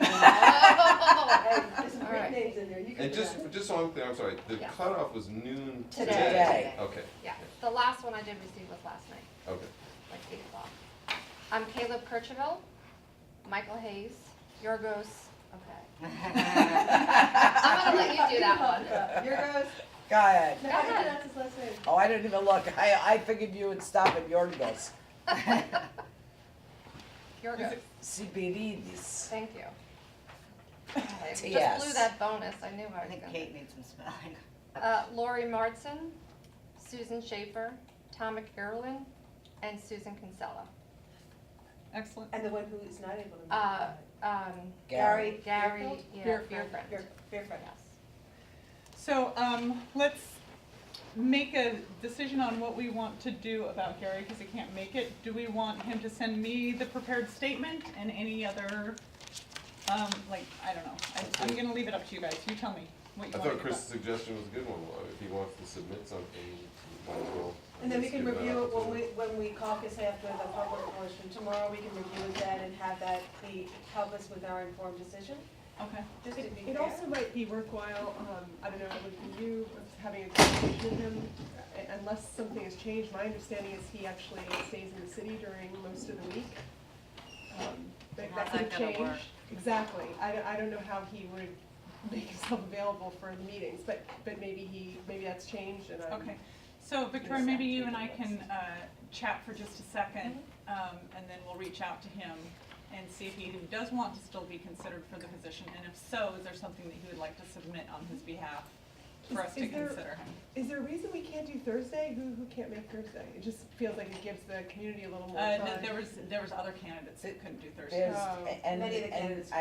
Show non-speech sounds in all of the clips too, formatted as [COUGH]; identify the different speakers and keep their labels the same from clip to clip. Speaker 1: Oh.
Speaker 2: so I'm clear, I'm sorry, the
Speaker 3: Yeah.
Speaker 2: cutoff was noon today?
Speaker 3: Today. Today.
Speaker 2: Okay,
Speaker 3: Yeah, [LAUGHS] the last one I did receive was last night,
Speaker 2: okay.
Speaker 3: like eight o'clock. I'm Caleb Kirchville, Michael Hayes, Yorgos, okay. I'm gonna let you do that one.
Speaker 1: Your goes,
Speaker 4: [LAUGHS]
Speaker 5: Go ahead.
Speaker 1: no, I think that's his last name.
Speaker 5: Oh, I didn't even look. I, I figured you would stop at
Speaker 4: [LAUGHS]
Speaker 5: Yorgos.
Speaker 3: Yorgos,
Speaker 5: Sibiridis.
Speaker 3: thank you. I just
Speaker 5: Yes.
Speaker 3: blew that bonus, I knew I
Speaker 4: I
Speaker 3: was
Speaker 4: think
Speaker 3: gonna.
Speaker 4: Kate needs some spelling.
Speaker 3: Uh, Lori Martson, Susan Schaefer, Tom McIrwin, and Susan Kinsella.
Speaker 6: Excellent.
Speaker 1: And the one who is not able to. make it.
Speaker 3: Uh, um,
Speaker 5: Gary.
Speaker 3: Gary,
Speaker 1: Beerfield?
Speaker 3: yeah,
Speaker 6: Beer-
Speaker 3: Beerfriend,
Speaker 1: Your, your friend.
Speaker 3: yes.
Speaker 6: So, um, let's make a decision on what we want to do about Gary, because he can't make it. Do we want him to send me the prepared statement and any other, um, like, I don't know. I, I'm gonna leave it up to you guys. You tell me
Speaker 2: I
Speaker 6: what you want to do.
Speaker 2: thought Chris's suggestion was a good one, Well, if he wants to submit something, he might as well. I
Speaker 1: And then we
Speaker 2: guess,
Speaker 1: can
Speaker 2: give that
Speaker 1: review it when we,
Speaker 2: opportunity.
Speaker 1: when we caucus after the public portion tomorrow, we can review that and have that be, help us with our informed decision,
Speaker 6: about- Okay.
Speaker 1: just to
Speaker 7: It
Speaker 1: be
Speaker 7: it
Speaker 1: fair.
Speaker 7: also might be worthwhile, um, I don't know, with you having a conversation with him, uh, unless something has changed, my understanding is he actually stays in the city during most of the week. Um, But that
Speaker 4: How's
Speaker 7: could
Speaker 4: that gonna
Speaker 7: change.
Speaker 4: work?
Speaker 7: Exactly, I don't, I don't know how he would [LAUGHS] make himself available for the meetings, but, but maybe he, maybe that's changed and um, I'm.
Speaker 6: Okay, so Victoria, maybe you and I can uh, chat for just a second, um, and then we'll reach out to him and see if he does want to still be considered for the position, and if so, is there something that he would like to submit on his behalf for us to
Speaker 7: Is there-
Speaker 6: consider?
Speaker 7: Is there a reason we can't do Thursday? Who, who can't make Thursday? It just feels like it gives the community a little more
Speaker 6: Uh,
Speaker 7: time.
Speaker 6: no, there was, there was other candidates that couldn't do Thursday.
Speaker 5: There's,
Speaker 7: Oh.
Speaker 5: and,
Speaker 1: Many of the
Speaker 5: and
Speaker 1: candidates
Speaker 5: I,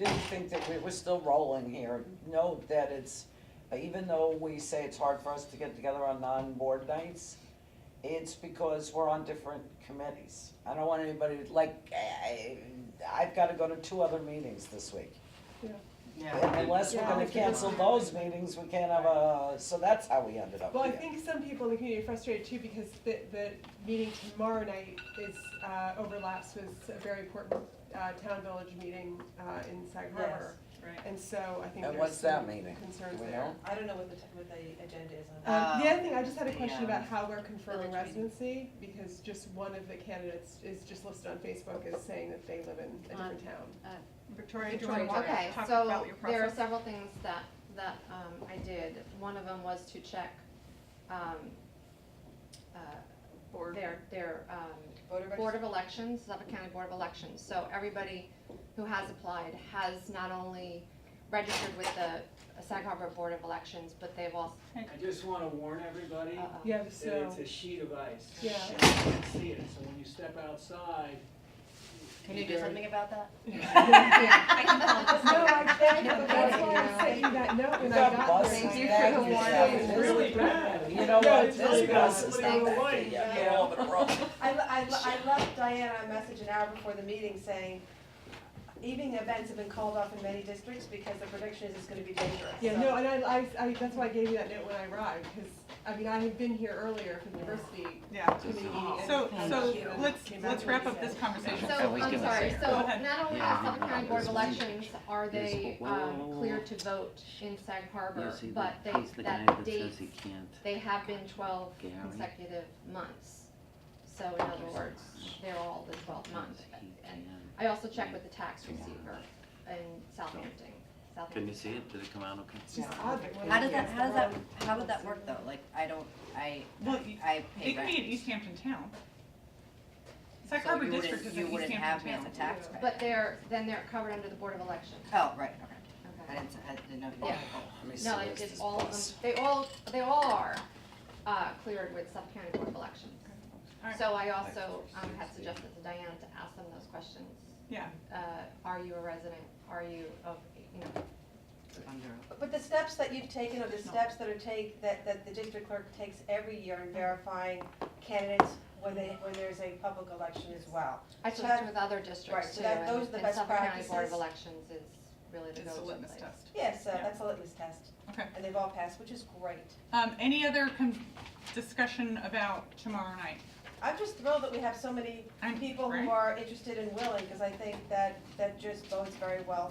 Speaker 5: I do think that we, we're still rolling here. Note that it's, uh, even though we say it's hard for us to get together on non-board nights, it's because we're on different committees. I don't want anybody, like, I, I've gotta go to two other meetings this week.
Speaker 4: Yeah.
Speaker 5: Unless we're gonna
Speaker 7: Yeah.
Speaker 5: cancel those meetings, we can't have a, so that's how we ended up
Speaker 7: Well, I
Speaker 5: here.
Speaker 7: think some people in the community are frustrated too because the, the meeting tomorrow night is, uh, overlaps with a very important, uh, town-village meeting, uh, in Sag Harbor.
Speaker 6: Right.
Speaker 7: And so I think
Speaker 5: And
Speaker 7: there's
Speaker 5: what's that
Speaker 7: some
Speaker 5: meaning?
Speaker 7: concerns
Speaker 5: Do we
Speaker 7: there.
Speaker 5: know?
Speaker 1: I don't know what the, t- what the agenda is on.
Speaker 7: Um, the
Speaker 4: Uh,
Speaker 7: other thing, I just had a question
Speaker 4: yeah.
Speaker 7: about how we're confirming
Speaker 4: Village meeting.
Speaker 7: residency, because just one of the candidates is just listed on Facebook as saying that they live in a different town.
Speaker 6: Victoria, do you
Speaker 3: Right,
Speaker 6: want to talk about your
Speaker 3: Okay,
Speaker 6: process?
Speaker 3: so there are several things that, that um, I did. One of them was to check um, uh,
Speaker 6: Board.
Speaker 3: their, their um,
Speaker 1: Voter registration.
Speaker 3: Board of Elections, Suffolk County Board of Elections. So everybody who has applied has not only registered with the Sag Harbor Board of Elections, but they've also,
Speaker 8: I just wanna warn everybody
Speaker 3: uh,
Speaker 8: that
Speaker 7: Yeah,
Speaker 8: it's
Speaker 7: [LAUGHS]
Speaker 8: [LAUGHS]
Speaker 7: so,
Speaker 8: a sheet of ice.
Speaker 7: Yeah.
Speaker 8: And you can't see it, so when you step outside.
Speaker 4: Can you do
Speaker 8: very-
Speaker 4: something about that?
Speaker 6: I can call this
Speaker 7: no, I
Speaker 3: [LAUGHS]
Speaker 7: can't,
Speaker 3: Yeah,
Speaker 7: that's why
Speaker 3: yeah.
Speaker 7: I sent you that note when
Speaker 5: We
Speaker 7: I
Speaker 5: got
Speaker 7: got
Speaker 5: buses
Speaker 7: there.
Speaker 4: Thank you for
Speaker 5: back here.
Speaker 4: the warning.
Speaker 8: It's really bad.
Speaker 5: You know
Speaker 8: Yeah,
Speaker 5: what,
Speaker 8: it's
Speaker 5: this
Speaker 8: really bad.
Speaker 5: bus is
Speaker 8: Somebody
Speaker 5: not
Speaker 8: will
Speaker 5: that
Speaker 8: wait.
Speaker 5: big, yeah, get over the road.
Speaker 1: I, le- I, le- I left Diana a message an hour before the meeting saying, evening events have been called off in many districts because the prediction is it's gonna be dangerous.
Speaker 7: Yeah,
Speaker 1: So-
Speaker 7: no, and I, I, I, that's why I gave you that note when I arrived, because, I mean, I had been here earlier for the diversity
Speaker 6: Yeah,
Speaker 7: committee meeting. and-
Speaker 6: so,
Speaker 7: and
Speaker 6: so
Speaker 7: she
Speaker 6: let's,
Speaker 7: came out
Speaker 6: let's
Speaker 7: and
Speaker 6: wrap up
Speaker 7: said-
Speaker 6: this conversation.
Speaker 3: so,
Speaker 9: I was
Speaker 3: I'm
Speaker 9: gonna
Speaker 3: sorry,
Speaker 9: say,
Speaker 3: so
Speaker 6: Go ahead.
Speaker 3: not only
Speaker 9: Yeah,
Speaker 3: is
Speaker 9: you
Speaker 3: Suffolk
Speaker 9: know,
Speaker 3: County Board of
Speaker 9: there's one
Speaker 3: Elections, are they
Speaker 9: There's-
Speaker 3: um,
Speaker 9: whoa.
Speaker 3: clear to vote in Sag Harbor,
Speaker 9: You see,
Speaker 3: but
Speaker 9: that-
Speaker 3: they,
Speaker 9: he's the guy
Speaker 3: that
Speaker 9: that
Speaker 3: date,
Speaker 9: says he can't.
Speaker 3: they have been twelve
Speaker 9: Gary.
Speaker 3: consecutive months. So in other words, they're all the twelve month.
Speaker 9: He
Speaker 3: And
Speaker 9: can.
Speaker 3: I also checked with the tax receiver in Southampton, Southampton.
Speaker 9: Can you see it? Did it come out okay?
Speaker 7: It's just odd that one
Speaker 4: How
Speaker 7: of
Speaker 4: does
Speaker 7: you
Speaker 4: that,
Speaker 7: is
Speaker 4: how does
Speaker 7: the
Speaker 4: that,
Speaker 7: wrong-
Speaker 4: how would that work though? Like, I don't, I,
Speaker 6: Well, you-
Speaker 4: I
Speaker 6: It
Speaker 4: pay
Speaker 6: could
Speaker 4: rent.
Speaker 6: be in East Hampton Town. Sac
Speaker 4: So
Speaker 6: Harbor
Speaker 4: you
Speaker 6: District
Speaker 4: wouldn't-
Speaker 6: is in
Speaker 4: You
Speaker 6: East
Speaker 4: wouldn't have me as
Speaker 6: Hampton
Speaker 4: a
Speaker 6: Town.
Speaker 4: taxpayer.
Speaker 3: But they're, then they're covered under the Board of Election.
Speaker 4: Oh, right, okay. I
Speaker 3: Okay.
Speaker 4: didn't, I didn't know. you
Speaker 3: Yeah.
Speaker 4: were-
Speaker 9: Let me see
Speaker 3: No,
Speaker 9: where's
Speaker 3: it is
Speaker 9: this
Speaker 3: all of them,
Speaker 9: bus.
Speaker 3: they all, they all are, uh, cleared with Suffolk County Board of Elections.
Speaker 6: Alright.
Speaker 3: So I also, um, had suggested to Diana to ask them those questions.
Speaker 6: Yeah,
Speaker 3: Uh, are you a resident? Are you of, you know,
Speaker 4: Under-
Speaker 1: But the steps that you've taken are the steps that are take, that, that the district clerk takes every year in verifying candidates when they, when there's a public election as well.
Speaker 3: I
Speaker 1: So
Speaker 3: checked
Speaker 1: that-
Speaker 3: with other
Speaker 1: right,
Speaker 3: districts
Speaker 1: so
Speaker 3: too,
Speaker 1: that-
Speaker 3: and
Speaker 1: those are the
Speaker 3: and
Speaker 1: best
Speaker 3: Suffolk County Board
Speaker 1: practices.
Speaker 3: of Elections is really the
Speaker 6: it's
Speaker 3: go-to
Speaker 6: a
Speaker 3: place.
Speaker 6: litmus test.
Speaker 1: Yeah, so
Speaker 6: Yeah.
Speaker 1: that's a litmus test,
Speaker 6: Okay.
Speaker 1: and they've all passed, which is great.
Speaker 6: Um, any other com- discussion about tomorrow night?
Speaker 1: I'm just thrilled that we have so many
Speaker 6: I'm-
Speaker 1: people
Speaker 6: right?
Speaker 1: who are interested and willing, because I think that, that just bodes very well